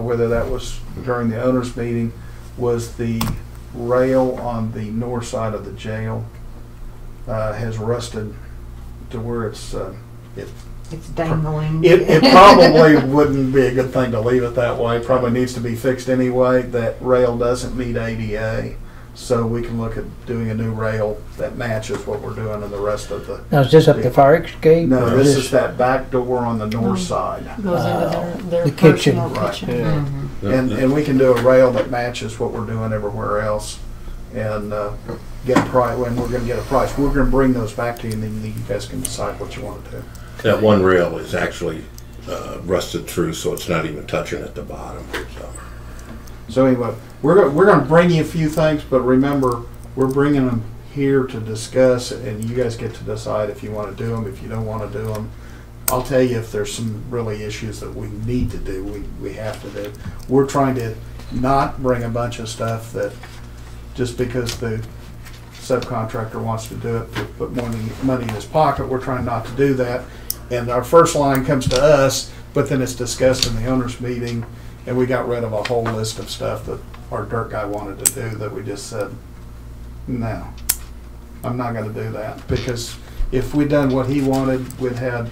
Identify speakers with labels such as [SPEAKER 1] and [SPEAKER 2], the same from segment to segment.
[SPEAKER 1] whether that was during the owners' meeting, was the rail on the north side of the jail uh, has rusted to where it's, uh, it,
[SPEAKER 2] It's dangling.
[SPEAKER 1] it, it probably wouldn't be a good thing to leave it that way. Probably needs to be fixed anyway. That rail doesn't meet ADA. So we can look at doing a new rail that matches what we're doing in the rest of the.
[SPEAKER 3] Now, is this up the fire escape?
[SPEAKER 1] No,
[SPEAKER 3] or
[SPEAKER 1] this is that back door on the north side.
[SPEAKER 4] Goes into their, their
[SPEAKER 3] The kitchen.
[SPEAKER 4] personal
[SPEAKER 1] Right.
[SPEAKER 4] kitchen.
[SPEAKER 5] Yeah.
[SPEAKER 2] Mhm.
[SPEAKER 1] And, and we can do a rail that matches what we're doing everywhere else and uh, get a price, when we're gonna get a price. We're gonna bring those back to you and then you guys can decide what you want to do.
[SPEAKER 5] That one rail is actually uh, rusted through, so it's not even touching at the bottom. So.
[SPEAKER 1] So anyway, we're, go- we're gonna bring you a few things, but remember, we're bringing them here to discuss and you guys get to decide if you want to do them, if you don't want to do them. I'll tell you if there's some really issues that we need to do, we, we have to do. We're trying to not bring a bunch of stuff that, just because the subcontractor wants to do it, to put money, money in his pocket, we're trying not to do that. And our first line comes to us, but then it's discussed in the owners' meeting, and we got rid of a whole list of stuff that our dirt guy wanted to do that we just said, no, I'm not gonna do that, because if we'd done what he wanted, we'd had,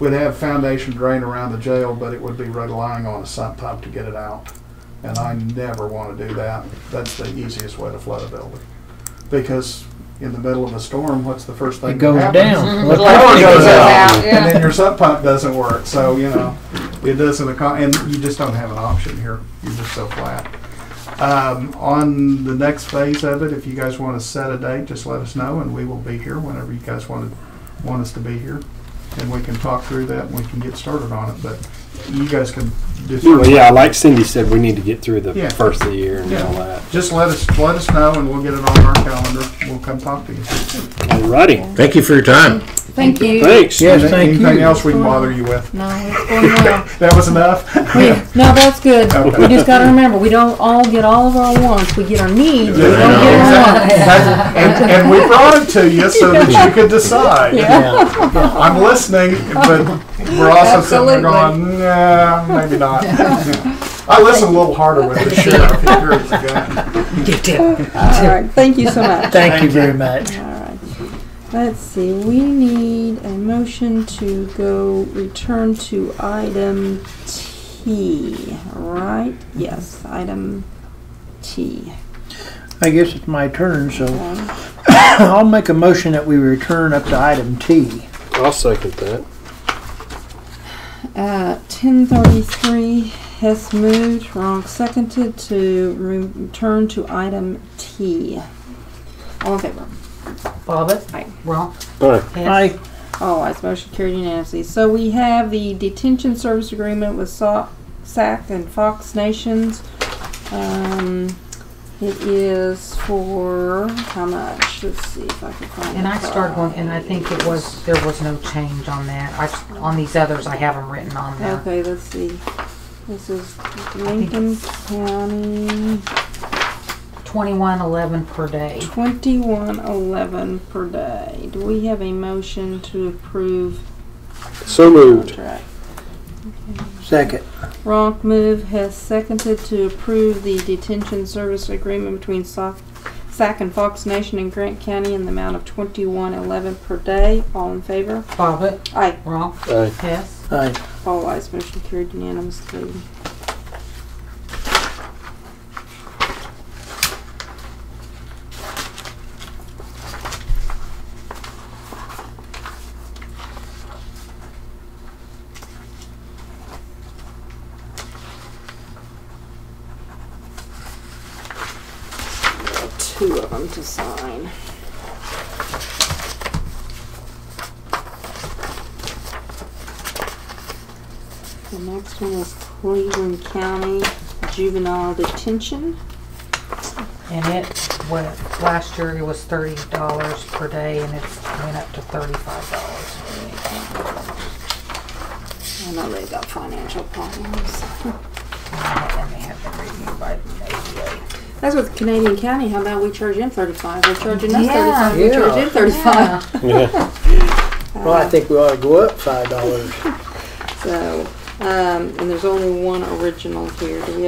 [SPEAKER 1] we'd have foundation drain around the jail, but it would be relying on a sump pump to get it out. And I never wanna do that, that's the easiest way to flood a building, because in the middle of a storm, what's the first thing
[SPEAKER 3] It
[SPEAKER 1] that
[SPEAKER 3] goes
[SPEAKER 1] happens?
[SPEAKER 3] down.
[SPEAKER 2] The
[SPEAKER 1] The power
[SPEAKER 2] Electricity
[SPEAKER 1] goes
[SPEAKER 2] goes
[SPEAKER 1] out,
[SPEAKER 2] out,
[SPEAKER 1] and then
[SPEAKER 2] yeah.
[SPEAKER 1] your sub pump doesn't work. So you know, it doesn't. Accom- and you just don't have an option here. You're just so flat. Um, on the next phase of it, if you guys want to set a date, just let us know, and we will be here whenever you guys want to, want us to be here, and we can talk through that and we can get started on it. But you guys can do.
[SPEAKER 6] Well, yeah, like Cindy said, we need to get through
[SPEAKER 1] Yeah.
[SPEAKER 6] the first of the year and all
[SPEAKER 1] Yeah.
[SPEAKER 6] that.
[SPEAKER 1] Just let us let us know, and we'll get it on our calendar. We'll come talk to you.
[SPEAKER 6] Alrighty,
[SPEAKER 5] Thank you for your time.
[SPEAKER 4] Thank you.
[SPEAKER 6] thanks.
[SPEAKER 3] Yes, thank
[SPEAKER 1] Anything
[SPEAKER 3] you.
[SPEAKER 1] else we can bother you with?
[SPEAKER 4] No, it's going well.
[SPEAKER 1] That was enough.
[SPEAKER 4] We- No, that's good.
[SPEAKER 1] Okay.
[SPEAKER 4] We just gotta remember, we don't all get all of our wants. We get our needs, we
[SPEAKER 5] Yeah, I
[SPEAKER 4] don't
[SPEAKER 5] know.
[SPEAKER 4] get our wants.
[SPEAKER 1] And, and we brought it to you so that you could decide.
[SPEAKER 3] Yeah.
[SPEAKER 1] I'm listening, but we're also sitting there going, nah, maybe not. I listen a little harder with the sheriff. He hears the gun.
[SPEAKER 7] All right, thank you so much.
[SPEAKER 3] Thank you very much.
[SPEAKER 7] All right. Let's see, we need a motion to go return to item T, right? Yes, item T.
[SPEAKER 3] I guess it's my turn, so
[SPEAKER 7] Okay.
[SPEAKER 3] I'll make a motion that we return up to item T.
[SPEAKER 6] I'll second that.
[SPEAKER 7] Uh, 1033 Hess moved, Ronk seconded to re- return to item T. All in favor?
[SPEAKER 2] Bobbit,
[SPEAKER 7] Aye.
[SPEAKER 2] wrong.
[SPEAKER 6] Alright,
[SPEAKER 2] Hess,
[SPEAKER 3] I,
[SPEAKER 7] All eyes motion carried unanimously. So we have the detention service agreement with Sa- SAC and Fox Nations. Um, it is for how much? Let's see if I can find.
[SPEAKER 2] And
[SPEAKER 7] the
[SPEAKER 2] I started one, and I think it was,
[SPEAKER 7] price.
[SPEAKER 2] there was no change on that. I, on these others, I have them written on there.
[SPEAKER 7] Okay, let's see. This is Lincoln County,
[SPEAKER 2] Twenty-one eleven per day.
[SPEAKER 7] twenty-one eleven per day. Do we have a motion to approve
[SPEAKER 6] so moved.
[SPEAKER 7] contract?
[SPEAKER 3] second.
[SPEAKER 7] Ronk move has seconded to approve the detention service agreement between Soc- SAC and Fox Nation in Grant County in the amount of twenty-one eleven per day. All in favor?
[SPEAKER 2] Bobbit,
[SPEAKER 7] Aye.
[SPEAKER 2] wrong.
[SPEAKER 6] Aye.
[SPEAKER 2] Hess,
[SPEAKER 3] I,
[SPEAKER 7] All ayes. Motion carried unanimously. Two of them to sign. The next one is Cleveland County Juvenile Detention.
[SPEAKER 2] and it, went last year it was thirty dollars per day, and it's went up to thirty-five dollars.
[SPEAKER 7] I know they've got financial problems.
[SPEAKER 2] And they have been reviewed by the ADA.
[SPEAKER 7] That's with Canadian County. How about we charge them thirty-five? They're charging us
[SPEAKER 2] Yeah,
[SPEAKER 7] thirty-five. We charge them thirty-five.
[SPEAKER 6] Yeah.
[SPEAKER 3] well, I think we ought to go up five dollars.
[SPEAKER 7] So, Um, and there's only one original here. Do we